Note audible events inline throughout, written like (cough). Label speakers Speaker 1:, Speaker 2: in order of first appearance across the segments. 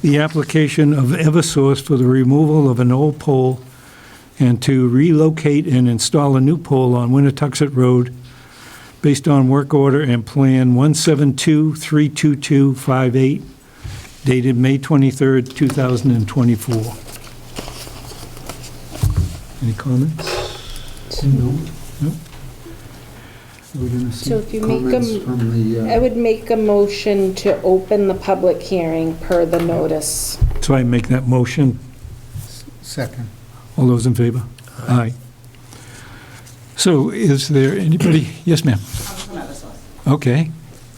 Speaker 1: the application of Eversource for the removal of an old pole and to relocate and install a new pole on Winnetoxet Road based on work order and plan 172-32258 dated May 23rd, 2024. Any comments?
Speaker 2: So if you make
Speaker 3: Comments
Speaker 2: them,
Speaker 3: from the,
Speaker 2: I
Speaker 3: uh,
Speaker 2: would make a motion to open the public hearing per the notice.
Speaker 1: So I make that motion.
Speaker 3: second.
Speaker 1: All those in favor? Aye. So is there
Speaker 3: (clears throat)
Speaker 1: anybody, yes, ma'am?
Speaker 4: Councilman Eversole.
Speaker 1: Okay,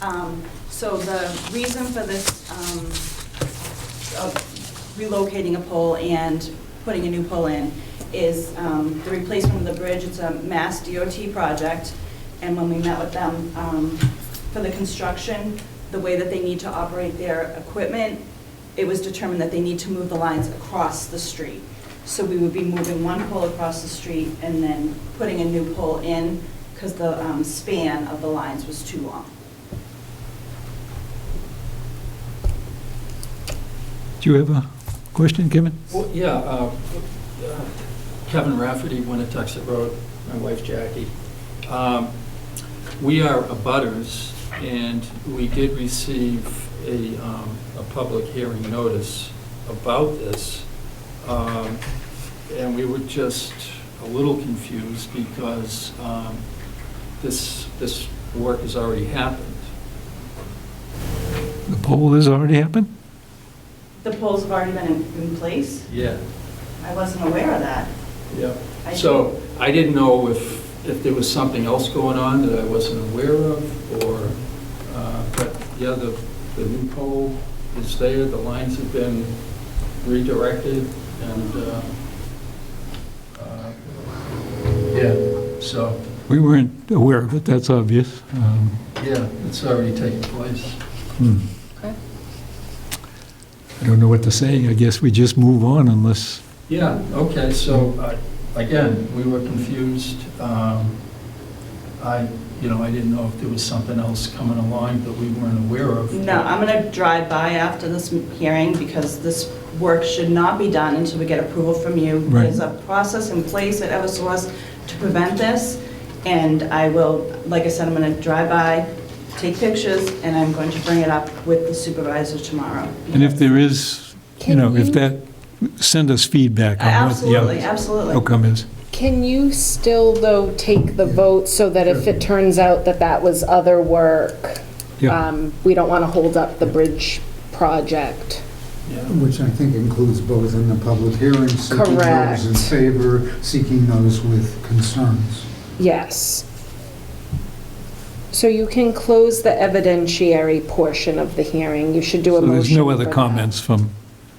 Speaker 4: Um, So the reason for this um, of relocating a pole and putting a new pole in is um, the replacement of the bridge. It's a Mass DOT project, and when we met with them um, for the construction, the way that they need to operate their equipment, it was determined that they need to move the lines across the street. So we would be moving one pole across the street and then putting a new pole in because the um, span of the lines was too long.
Speaker 1: do you have a question, Kevin?
Speaker 5: Well, yeah, uh, uh, Kevin Rafferty, Winnetoxet Road, my wife Jackie. Um, We are abutters, and we did receive a, um, a public hearing notice about this. Um, And we were just a little confused because um, this, this work has already happened.
Speaker 1: The poll has already happened?
Speaker 4: The polls have already been in- in place?
Speaker 5: Yeah.
Speaker 4: I wasn't aware of that.
Speaker 5: Yeah,
Speaker 4: I-
Speaker 5: so I didn't know if, if there was something else going on that I wasn't aware of, or, uh, but, yeah, the, the new pole is there, the lines have been redirected, and, uh, uh, yeah, so,
Speaker 1: We weren't aware of it, that's obvious. Um,
Speaker 5: yeah, it's already taken place.
Speaker 1: hmm.
Speaker 2: Okay.
Speaker 1: I don't know what to say, I guess we just move on unless,
Speaker 5: Yeah, okay, so, uh, again, we were confused. Um, I, you know, I didn't know if there was something else coming along that we weren't aware of.
Speaker 4: No, I'm going to drive by after this m- hearing because this work should not be done until we get approval from you.
Speaker 1: Right.
Speaker 4: There's a process in place at Eversource to prevent this, and I will, like I said, I'm going to drive by, take pictures, and I'm going to bring it up with the supervisor tomorrow.
Speaker 1: and if there is, you
Speaker 2: Can
Speaker 1: know, if
Speaker 2: you-
Speaker 1: that, send us feedback on what the
Speaker 4: Absolutely,
Speaker 1: out-
Speaker 4: absolutely.
Speaker 1: outcome is.
Speaker 2: Can you still, though, take the vote so that if it turns out that that was other work,
Speaker 1: Yeah,
Speaker 2: um, we don't want to hold up the bridge project?
Speaker 5: Yeah.
Speaker 3: Which I think includes both in the public hearing, seeking
Speaker 2: Correct.
Speaker 3: those in favor, seeking those with concerns.
Speaker 2: Yes. So you can close the evidentiary portion of the hearing. You should do a
Speaker 1: so
Speaker 2: motion.
Speaker 1: there's no
Speaker 2: for
Speaker 1: other
Speaker 2: that.
Speaker 1: comments from,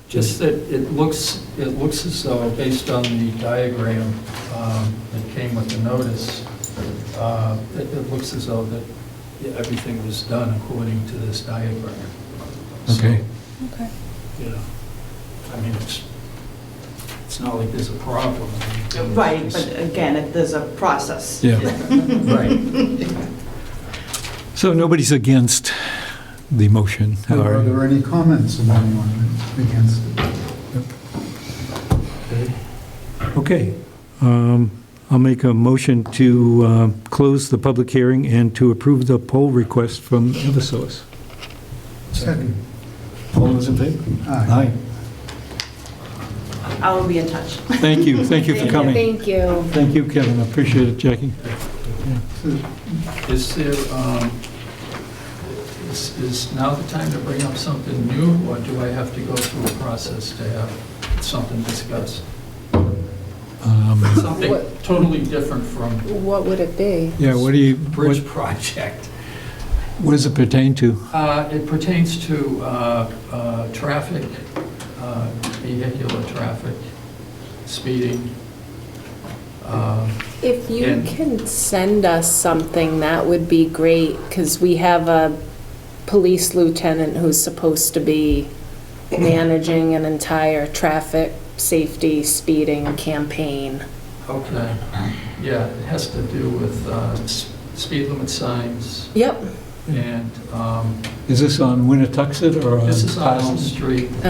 Speaker 5: Just that it looks, it looks as though, based on the diagram um, that came with the notice, uh, it it looks as though that everything was done according to this diagram. So,
Speaker 1: okay,
Speaker 2: Okay.
Speaker 5: You know, I mean, it's, it's not like there's a problem.
Speaker 4: Right, but again, it- there's a process.
Speaker 1: yeah.
Speaker 5: (laughs) Right.
Speaker 1: So nobody's against the motion?
Speaker 3: Are
Speaker 1: or-
Speaker 3: there any comments of anyone against it?
Speaker 1: Okay. Um, I'll make a motion to uh, close the public hearing and to approve the poll request from Eversource.
Speaker 3: Second.
Speaker 1: All those in favor?
Speaker 3: Aye.
Speaker 4: I will be in touch.
Speaker 1: Thank you, thank you for coming.
Speaker 2: Thank you.
Speaker 1: Thank you, Kevin, I appreciate it, Jackie.
Speaker 5: Is there, um, is is now the time to bring up something new, or do I have to go through a process to have something discussed?
Speaker 1: Um,
Speaker 5: Something
Speaker 2: What-
Speaker 5: totally different from
Speaker 2: What would it be?
Speaker 1: Yeah, what do you, what
Speaker 5: bridge project.
Speaker 1: what does it pertain to?
Speaker 5: Uh, It pertains to uh, uh, traffic, uh, vehicular traffic, speeding. Uh,
Speaker 2: If you
Speaker 5: Yeah.
Speaker 2: can send us something, that would be great, because we have a police lieutenant who's supposed to be managing an entire traffic, safety, speeding campaign.
Speaker 5: Okay, yeah, it has to do with uh, s- speed limit signs
Speaker 2: Yep,
Speaker 5: and um,
Speaker 1: Is this on Winnetoxet or on
Speaker 5: this is on Elm
Speaker 1: Parsons?
Speaker 5: Street.